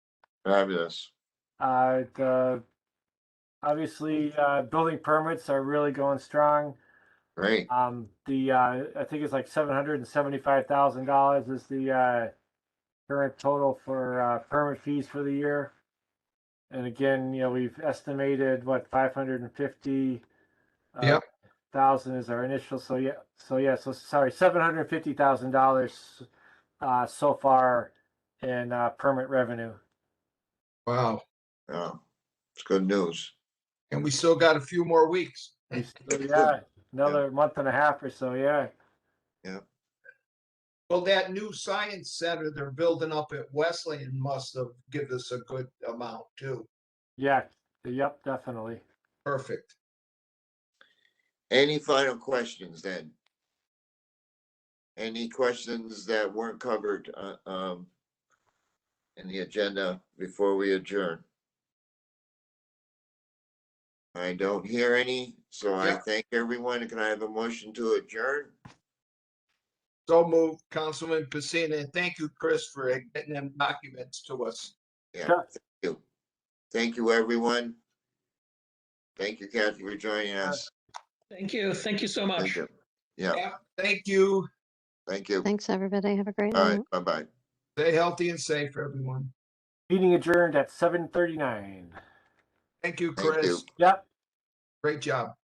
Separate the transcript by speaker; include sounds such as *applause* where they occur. Speaker 1: Fabulous.
Speaker 2: Uh, the, obviously, uh, building permits are really going strong.
Speaker 1: Great.
Speaker 2: Um, the, uh, I think it's like seven hundred and seventy-five thousand dollars is the, uh, current total for, uh, permit fees for the year. And again, you know, we've estimated what five hundred and fifty. uh,
Speaker 3: Yep.
Speaker 2: Thousand is our initial, so yeah, so yeah, so sorry, seven hundred and fifty thousand dollars, uh, so far in, uh, permit revenue.
Speaker 3: Wow.
Speaker 1: Yeah. It's good news.
Speaker 3: And we still got a few more weeks.
Speaker 2: We still-
Speaker 1: *laughs*
Speaker 2: Yeah, another month and a half or so, yeah.
Speaker 3: Well, that new science center they're building up at Wesleyan must have given us a good amount too.
Speaker 2: Yeah, yep, definitely.
Speaker 3: Perfect.
Speaker 1: Any final questions then? Any questions that weren't covered, uh, um, in the agenda before we adjourn? I don't hear any, so I
Speaker 3: Yeah.
Speaker 1: thank everyone. Can I have a motion to adjourn?
Speaker 3: So move, Councilman Pacina, and thank you, Chris, for getting them documents to us.
Speaker 1: Yeah,
Speaker 2: Sure.
Speaker 1: thank you. Thank you, everyone. Thank you, Kathy, for joining us.
Speaker 4: Thank you. Thank you so
Speaker 1: Thank
Speaker 4: much.
Speaker 1: you. Yeah,
Speaker 3: Yeah, Thank you.
Speaker 1: thank you.
Speaker 5: Thanks, everybody. Have a great
Speaker 1: All
Speaker 5: night.
Speaker 1: right, bye-bye.
Speaker 3: Stay healthy and safe, everyone.
Speaker 2: Meeting adjourned at seven thirty-nine.
Speaker 3: Thank you,
Speaker 1: Thank you.
Speaker 3: Chris.
Speaker 2: Yep.
Speaker 3: Great job.